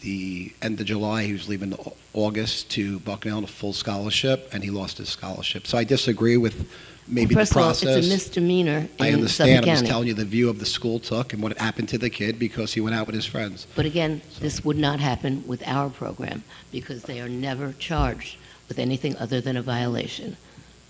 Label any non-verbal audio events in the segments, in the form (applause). the end of July. He was leaving Au- August to Bucknell on a full scholarship, and he lost his scholarship. So I disagree with maybe the First of all, it's process. a misdemeanor I in Suffolk understand. I'm just County. telling you the view of the school took and what happened to the kid because he went out with his friends. But again, this would not happen with our program because they are never charged with anything other than a violation.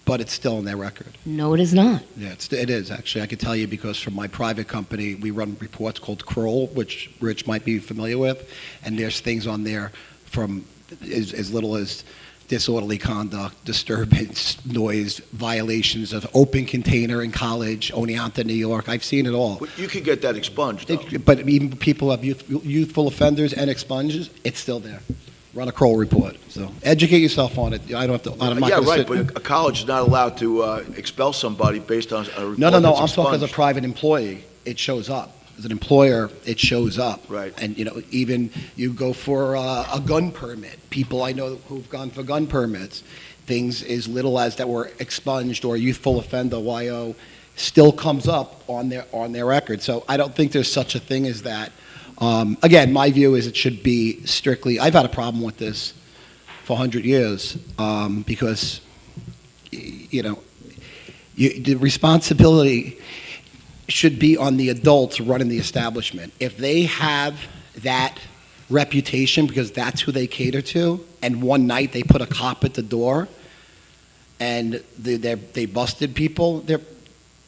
But it's still in their record. No, it is not. Yeah, it's, it is actually. I can tell you because from my private company, we run reports called Kroll, which Rich might be familiar with, and there's things on there from as, as little as disorderly conduct, disturbance, noise, violations of open container in college, Oneonta, New York. I've seen it all. Well, You could get that expunged, though. It, but even people have youth, youthful offenders and expunges. It's still there. Run a Kroll report. So educate yourself on it. I don't have to. I'm not Yeah, gonna right, sit- but a college is not allowed to uh, expel somebody based on a report No, no, no. I'm that's talking as a expunged. private employee. It shows up. As an employer, it shows up. Right. And you know, even you go for uh, a gun permit. People I know who've gone for gun permits, things as little as that were expunged or youthful offender YO still comes up on their on their record. So I don't think there's such a thing as that. Um, again, my view is it should be strictly. I've had a problem with this for 100 years um, because y- you know you, the responsibility should be on the adults running the establishment. If they have that reputation because that's who they cater to, and one night they put a cop at the door and they, they're- they busted people, they're,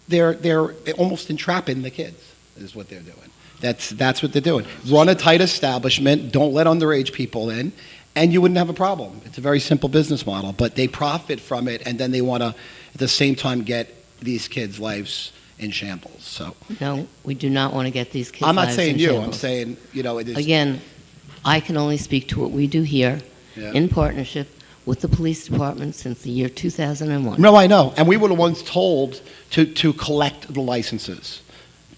they're, they're almost entrapping the kids, is what they're doing. That's, that's what they're doing. Run a tight establishment, don't let underage people in, and you wouldn't have a problem. It's a very simple business model, but they profit from it, and then they want to, at the same time, get these kids' lives in shambles. So No, we do not want to get these kids. I'm not lives saying in you. I'm shambles. saying you know it is. Again, I can only speak to what we do here Yeah. in partnership with the police department since the year 2001. no, I know, and we were the ones told to to collect the licenses.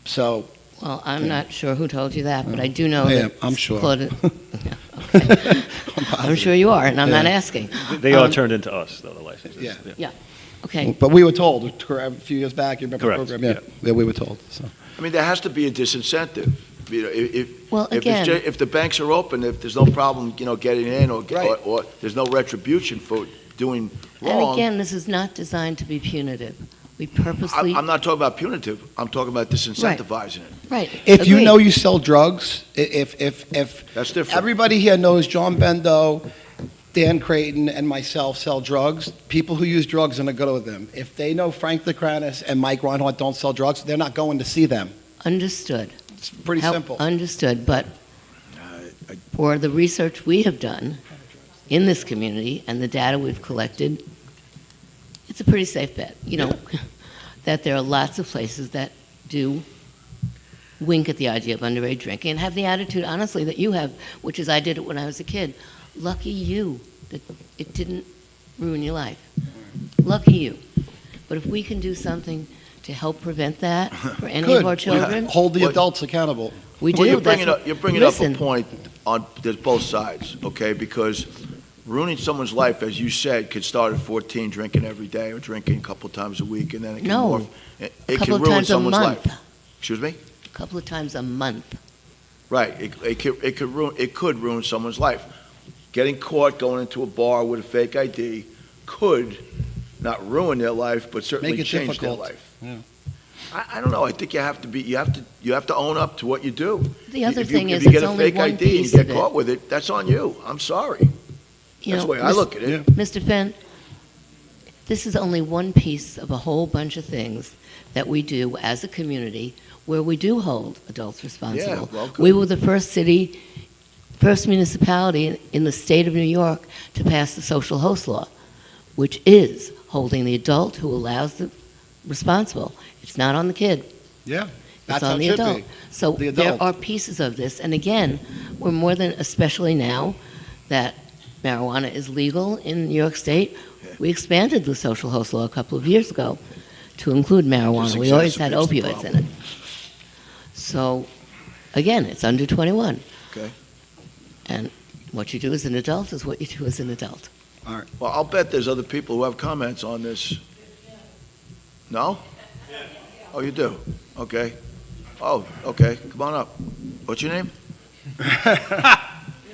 So Well, I'm Yeah. not sure who told you that, but I do know Yeah, that. I'm sure. (laughs) Claude- Yeah, okay. (laughs) (laughs) I'm I'm sure you are, and I'm not Yeah. asking. They are Um, turned into us, though, the licenses. Yeah. Okay, But we were told cor- a few years back. You remember Correct, the program? Yeah. yeah, we were told. So. I mean, there has to be a disincentive, you know, i- if, well, if, it's again, ju- if the banks are open, if there's no problem, you know, getting in or, Right. or, or there's no retribution for doing and wrong. again, this is not designed to be punitive. We I- purposely, I'm not talking about punitive, I'm talking about disincentivizing it. right. If you agreed. know you sell drugs, i- if if if That's different. everybody here knows John Bendo, Dan Creighton, and myself sell drugs, people who use drugs are gonna go to them. If they know Frank Lecranis and Mike Reinhardt don't sell drugs, they're not going to see them. Understood. It's pretty How- simple. Uh, Understood, but I- for the research we have done in this community and the data we've collected, it's a pretty safe bet, you know, (laughs) that there are lots of places that do wink at the idea of underage drinking and have the attitude, honestly, that you have, which is I did it when I was a kid. Lucky you that it didn't ruin your life. Lucky you. But if we can do something to help prevent (laughs) that for any Good. of our children, Hold the Well- adults accountable. we Well, do. you're That's bringing what- up, you're bringing up a Listen, point on, there's both sides, okay? Because ruining someone's life, as you said, could start at 14, drinking every day or drinking a couple times a week, and then it can No. morph. It- a It couple can of ruin times a someone's month. life. Excuse me? A couple of times a month. Right, it, it could, it could ruin, it could ruin someone's life. Getting caught going into a bar with a fake ID could not ruin their life, but certainly Make it change their difficult. life. Yeah. I, I don't know, I think you have to be, you have to, you have to own up to what you do. The other If you- thing if is, you it's get a only fake one ID and piece You of get it. caught with it, that's on you, I'm sorry. You That's know, the way I Mr. look at it. Mr. Finn, this is only one piece of a whole bunch of things that we do as a community where we do hold adults responsible. well, good. we were the first city, first municipality in- in the state of New York to pass the social host law, which is holding the adult who allows the responsible. It's not on the kid. Yeah. It's That's how on it the should adult. be. So The there adult. are pieces of this, and again, we're more than, especially now that marijuana is legal in New York State, we expanded the social host law a couple of years ago to include marijuana. Just We always had exacerbates the opioids in it. So, again, it's under 21. Okay. And what you do as an adult is what you do as an adult. Well, I'll bet there's other people who have comments on this. No? Oh, you do? Okay. Oh, okay, come on up. What's your name?